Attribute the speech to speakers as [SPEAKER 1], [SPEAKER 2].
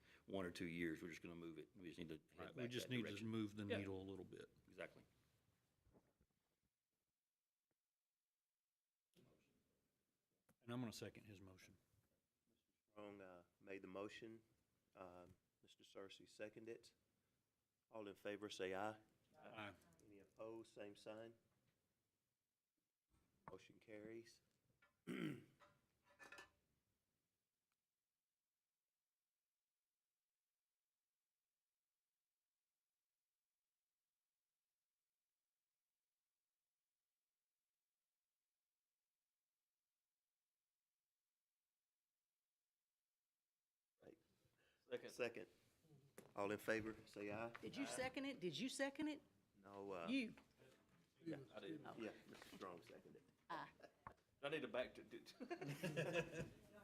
[SPEAKER 1] one or two years, we're just gonna move it. We just need to head
[SPEAKER 2] Right,
[SPEAKER 1] back
[SPEAKER 2] we just
[SPEAKER 1] that
[SPEAKER 2] need to
[SPEAKER 1] direction.
[SPEAKER 2] move the
[SPEAKER 1] Yeah.
[SPEAKER 2] needle a little bit.
[SPEAKER 1] Exactly.
[SPEAKER 2] And I'm going to second his motion.
[SPEAKER 3] Strong uh, made the motion. Um, Mr. Cersey seconded it. All in favor, say aye.
[SPEAKER 2] Aye.
[SPEAKER 3] Any opposed, same sign. Motion carries. Second. All in favor, say aye.
[SPEAKER 4] Did you second it? Did you second it?
[SPEAKER 3] No, uh,
[SPEAKER 4] You?
[SPEAKER 1] I did.
[SPEAKER 3] yeah, Mr. Strong seconded.
[SPEAKER 1] I need to back to,